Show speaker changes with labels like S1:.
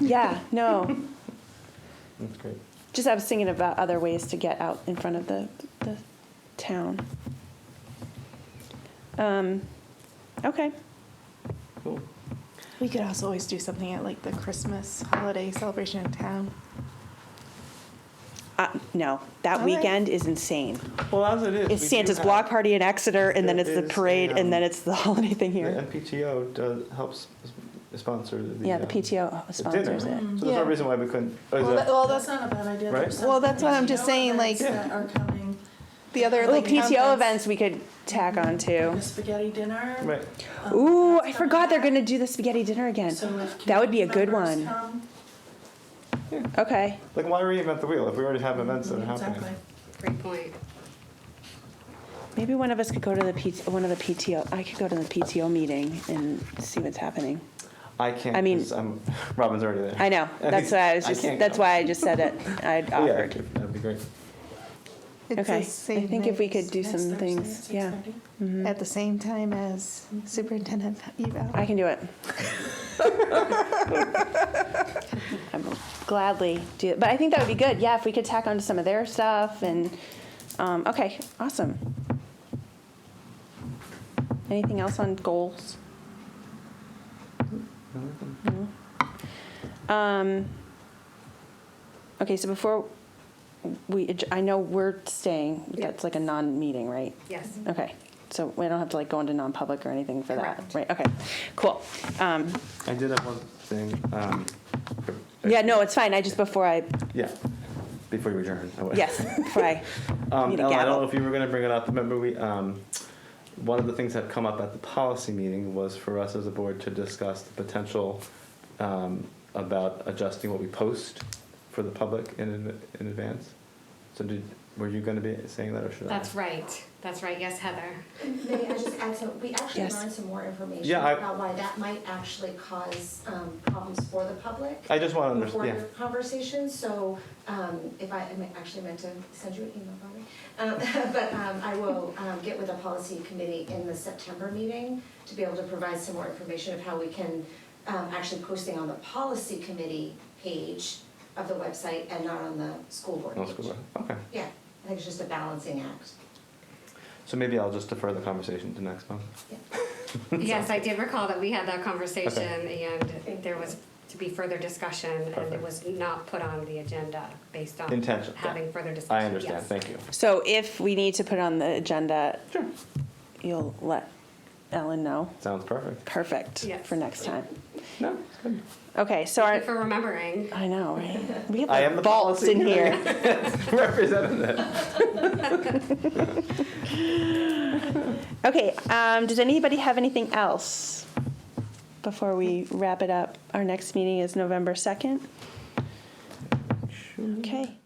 S1: Yeah, no.
S2: That's great.
S1: Just I was thinking about other ways to get out in front of the, the town. Um, okay.
S2: Cool.
S3: We could also always do something at like the Christmas holiday celebration in town.
S1: Uh, no, that
S3: All right.
S1: weekend is insane.
S2: Well, as it is.
S1: It's
S2: we do
S1: Santa's
S2: have-
S1: block party in Exeter, and then
S2: There
S1: it's the
S2: is a,
S1: parade,
S2: um,
S1: and then it's the holiday thing
S2: The
S1: here.
S2: MPTO does, helps s- sponsor the.
S1: Yeah, the
S2: um,
S1: PTO
S2: the dinner.
S1: sponsors it.
S2: So there's
S3: Yeah.
S2: no reason why we couldn't, oh, is
S3: Well,
S2: that-
S3: that, well
S4: that's
S3: that's
S4: not a bad idea.
S2: Right?
S4: There's some
S3: Well, that's what I'm just
S4: PTO
S3: saying, like-
S4: events That are coming,
S3: the other
S1: Well,
S3: like
S1: PTO
S3: conference.
S1: events we could tack on
S4: the
S1: to.
S4: spaghetti dinner.
S2: right,
S3: Oh,
S4: um,
S1: Ooh,
S4: that's
S1: I forgot they're
S4: coming
S1: gonna do the spaghetti dinner
S4: up.
S1: again.
S4: So if
S1: That would be a good
S4: community members
S1: one.
S4: come,
S1: Okay.
S2: like, why reinvent the wheel if we already have events that are happening?
S4: exactly.
S5: Great point.
S1: Maybe one of us could go to the P- one of the PTO. I could go to the PTO meeting and see what's happening.
S2: I can't,
S1: I mean-
S2: 'cause I'm, Robin's already there.
S1: I know. That's why I was
S2: I
S1: just.
S2: can't
S1: that's
S2: go.
S1: why I just said it. I would
S2: Yeah,
S1: offered.
S2: that'd be great.
S3: It's
S1: okay.
S3: the
S1: I
S3: same
S1: think if we could do
S4: Next
S1: some
S4: Thursday at
S1: things. Yeah.
S4: 6:30.
S1: Mhm.
S3: at the same time as superintendent eval.
S1: I can do it. I'm gladly do it. But I think that would be good. Yeah, if we could tack onto some of their stuff and um, okay, awesome. Anything else on goals? No. Um, okay, so before we, adj- I know we're staying.
S5: Yeah.
S1: That's like a non-meeting, right?
S5: Yes.
S1: Okay, so we don't have to like go into non-public or anything for that,
S5: Correct.
S1: right? Okay, cool. Um,
S2: I did have one thing. um,
S1: yeah, no, it's fine. I just before I
S2: Yeah, before you adjourn. I would-
S1: yes, before I
S2: Um,
S1: Need a
S2: Ellen, I
S1: gavel.
S2: don't know if you were going to bring it up. Remember, we um, one of the things that come up at the policy meeting was for us as a board to discuss the potential um, about adjusting what we post for the public in adv- in advance. So, did were you going to be saying that, or should
S5: That's right. That's right. Yes, Heather.
S6: Maybe I just add some, we actually
S1: Yes.
S6: learned some more information
S2: Yeah, I-
S6: about why that might actually cause um, problems for the public.
S2: I? I just want to
S6: Before your
S2: understand.
S6: conversation, so um, if I, I mean, actually meant to send you an email, probably. Um, But um, I will um, get with the policy committee in the September meeting to be able to provide some more information of how we can, um, actually posting on the policy committee page of the website and not on the school board
S2: No,
S6: page.
S2: it's good. Okay.
S6: Yeah, I think it's just a balancing act.
S2: So maybe I'll just defer the conversation to next month.
S5: Yes, I did recall that we had that conversation and there was to be further discussion and it
S2: Perfect.
S5: was not put on the agenda based on
S2: Intention, yeah.
S5: having further discussion.
S2: I understand.
S5: Yes.
S2: Thank you.
S1: So if we need to put it on the agenda, you'll let Ellen know.
S2: Sounds perfect.
S1: Perfect
S5: Yes.
S1: for next time.
S2: No, good.
S1: Okay, so
S5: Thank
S1: our,
S5: you for remembering.
S1: I know, right? We have
S2: I
S1: like
S2: am the
S1: vaults
S2: policy
S1: in here.
S2: representing that.
S1: Okay, um, does anybody have anything else before we wrap it up? Our next meeting is November 2nd. Okay.